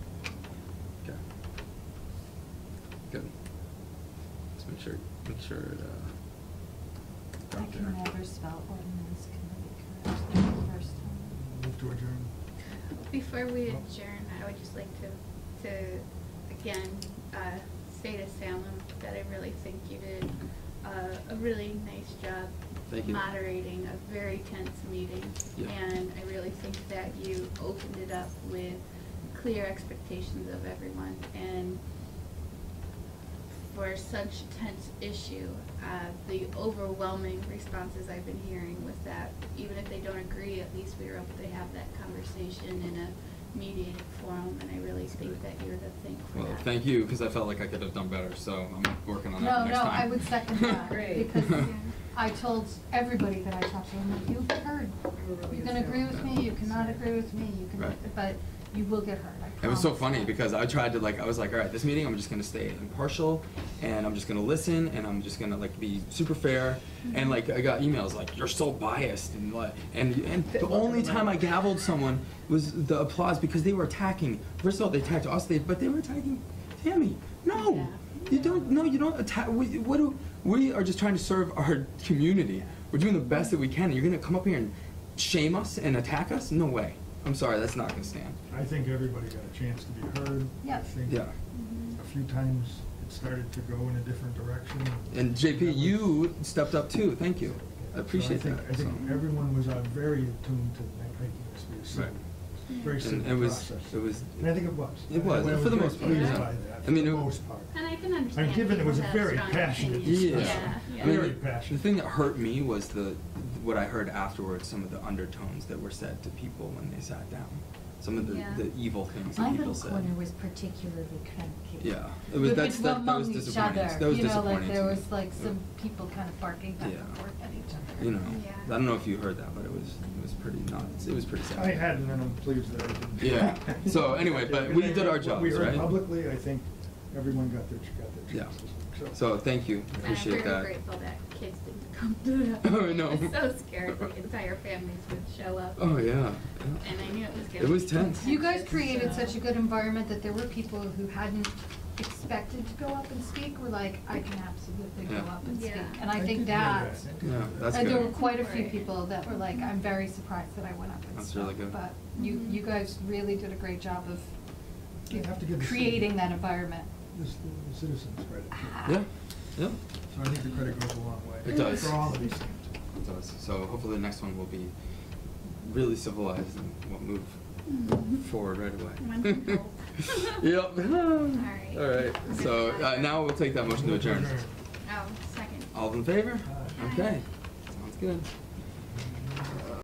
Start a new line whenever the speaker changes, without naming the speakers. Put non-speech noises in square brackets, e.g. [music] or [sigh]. Good. Let's make sure, make sure it, uh.
I
got
can
there.
never spell ordinance committee correctly the first time.
Move to adjourn.
Before we adjourn, I would just like to, to, again, uh, say to Salem that I really think you did uh, a really nice job
Thank you.
moderating a very tense meeting.
Yeah.
And I really think that you opened it up with clear expectations of everyone. And for such a tense issue, uh, the overwhelming responses I've been hearing was that even if they don't agree, at least we were able to have that conversation in a mediated forum, and I really
That's
think
great.
that you're to thank for that.
Well, thank you, because I felt like I could have done better, so I'm working on that for
No, no,
next time.
I would
[laughs]
second that,
Great.
because I told everybody that I talked to, I'm like, you've heard. You can agree with me, you cannot agree with me, you can,
Right.
but you will get heard, I promise.
It was so funny because I tried to like I was like, all right, this meeting I'm just gonna stay impartial, and I'm just gonna listen, and I'm just gonna like be super fair, and like I got emails like you're so biased and like and and the only time I gavelled someone was the applause because they were attacking. First of all, they attacked us, they but they were attacking Tammy. No,
Yeah.
you don't. No, you don't attack. We, what do we are just trying to serve our community. We're doing the best that we can. and You're gonna come up here and shame us and attack us? No way. I'm sorry, that's not gonna stand.
I think everybody got a chance to be heard.
Yeah.
I think
Yeah.
A few times it started to go in a different direction.
And
That
JP,
was-
you stepped up too, thank you. I
So
appreciate
think-
that.
I think
So-
everyone was uh, very attuned to that making this be a simple,
Right.
very
And
simple
it was-
process.
it was-
And I think it was.
It was,
I- I
for the
very
most part,
pleased
yeah.
by that,
I
for
mean,
the
it-
most part.
And I can understand.
And given it was a
people have
very
strong
passionate
opinions.
Yeah.
discussion.
Yeah,
I mean,
yeah.
Very
the- The
passionate.
thing that hurt me was the, what I heard afterwards, some of the undertones that were said to people when they sat down. Some of the,
Yeah.
the evil things
My
that people
little
said.
corner was particularly cranky.
Yeah, it was,
But
that's, that,
it's
that was
among each
disappointing.
other,
That was disappointing.
You
to
know, like there
me.
was like some
Uh,
people kind of barking back and
Yeah.
forth at each other.
You know, I
Yeah.
don't know if you heard that, but it was, it was pretty nuts, it was pretty sad.
I hadn't, and I'm pleased that I didn't.
Yeah. So anyway, but
Yeah,
we
and I
did our
[laughs] think what We
jobs,
heard
right?
publicly, I think everyone got their, got their
Yeah,
chances.
so thank you,
And
appreciate that.
I'm very grateful that kids didn't come to that.
[laughs] Oh, no.
I was so scared the entire families would show up.
Oh, yeah.
And I knew it was gonna
It was
be
tense.
You guys
contentious,
created
so-
such a good environment that there were people who hadn't expected to go up and speak were like, I can absolutely go
Yeah.
up and speak.
Yeah.
And I
did
think
hear
that,
I did
Yeah,
hear
that's
and there
good.
were quite a few
Right.
people that were like, I'm very surprised that I went up and
That's
spoke.
really good.
But you,
Mhm.
you guys really did a great job of
You have to give the city-
creating that environment.
This, the citizens credit.
Ah.
Yeah, yeah.
So I think the credit goes a long way.
It does.
For all of these things.
It does. So hopefully the next one will be really civilized and we'll move forward right away.
Mm-hmm. Wonderful.
[laughs]
[laughs]
yep.
right.
All right. So uh, now we'll take that motion to adjourn.
Oh, second.
All in favor?
Aye.
Okay. Sounds good.